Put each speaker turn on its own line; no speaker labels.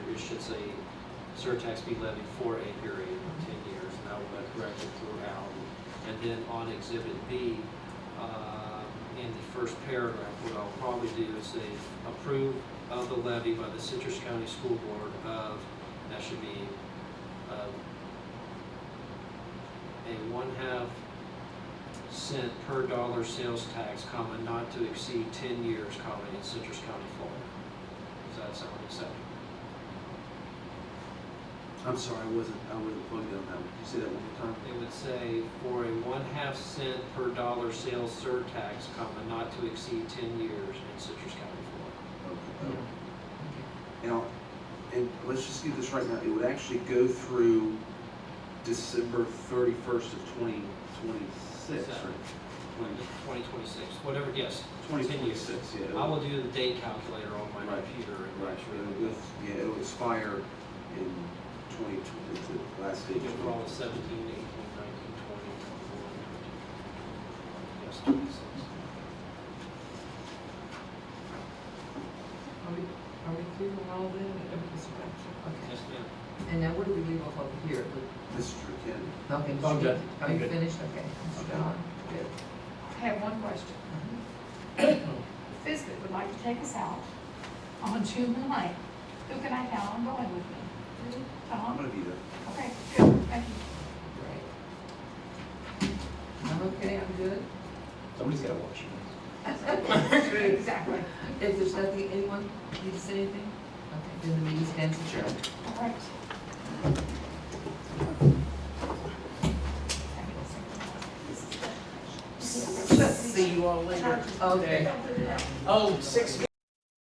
a surtax be levied for a period of 10 years, and I will have corrected throughout. And then on Exhibit B, uh, in the first paragraph, what I'll probably do is say, approve of the levy by the Citrus County School Board of, that should be uh, a one-half cent per dollar sales tax, comma, not to exceed 10 years, comma, in Citrus County, Florida. Does that sound acceptable?
I'm sorry, I wasn't, I wasn't plugged in on that one. Can you say that one more time?
It would say for a one-half cent per dollar sales surtax, comma, not to exceed 10 years in Citrus County, Florida.
Now, and let's just do this right now. It would actually go through December thirty-first of twenty twenty-six,
Seven.
right?
2026, whatever, yes.
Twenty
10 years.
twenty-six, yeah.
I
it'll-
will do the date calculator on my
Right.
computer and
Right,
make
sure, it'll,
sure
go- yeah, it'll expire in twenty twenty, the last day.
that
of
we get
20.
all 17, 18, 19, 20, 21, 22. Yes, 26.
Are we, are we through with all that, every inspection?
Yes,
Okay.
ma'am.
And now what do we leave off over here? With-
Mr. Ken,
Okay,
I'm
you-
good.
Are
I'm
you
good.
finished? Okay. Mr. John? Good.
I have one question. Fisbit would like to take us out on June the ninth. Who can I count on going with me?
I'm
Tom?
gonna be there.
Okay, good, thank you.
Great. I'm okay, I'm good.
Somebody's gotta watch you.
Exactly.
If there's nothing, anyone need to say anything? Okay, then the meeting stands adjourned.
All right. This is the-
See you all later. Okay.
Oh, six